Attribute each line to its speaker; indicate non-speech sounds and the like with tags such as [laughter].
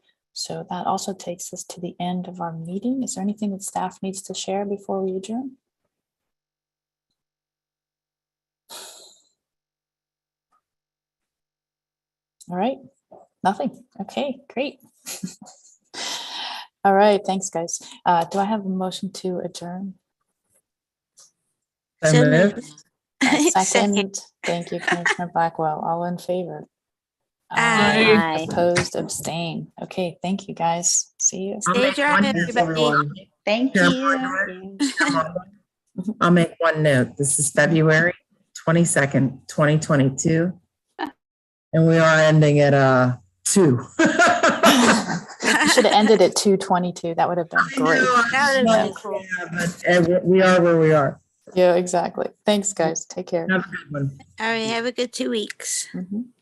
Speaker 1: So that also takes us to the end of our meeting. Is there anything that staff needs to share before we adjourn? All right, nothing. Okay, great. [laughs] All right, thanks, guys. Uh, do I have a motion to adjourn?
Speaker 2: So
Speaker 3: So
Speaker 2: moved.
Speaker 3: moved.
Speaker 1: A
Speaker 3: Second.
Speaker 1: Second, thank you, Commissioner
Speaker 3: [laughs]
Speaker 1: Blackwell. All in favor?
Speaker 3: Aye. Aye.
Speaker 1: Opposed, abstain. Okay, thank you, guys. See you.
Speaker 2: I'll make
Speaker 3: Stage
Speaker 2: one
Speaker 3: right,
Speaker 2: note,
Speaker 3: everybody.
Speaker 2: everyone. [laughs]
Speaker 4: Thank
Speaker 2: Chair
Speaker 4: you.
Speaker 2: Bernhardt, Chair I'll make one note. This is February twenty-second, twenty twenty-two. And we are ending at, uh, two.
Speaker 1: [laughs]
Speaker 2: [laughs]
Speaker 1: You Should have ended at two twenty-two. That would have been great.
Speaker 3: That
Speaker 1: would've
Speaker 3: been cool.
Speaker 2: But uh, we- we are where we are.
Speaker 1: Yeah, exactly. Thanks, guys. Take care.
Speaker 2: Have a good one.
Speaker 3: All right, have a good two weeks.
Speaker 1: Mhm.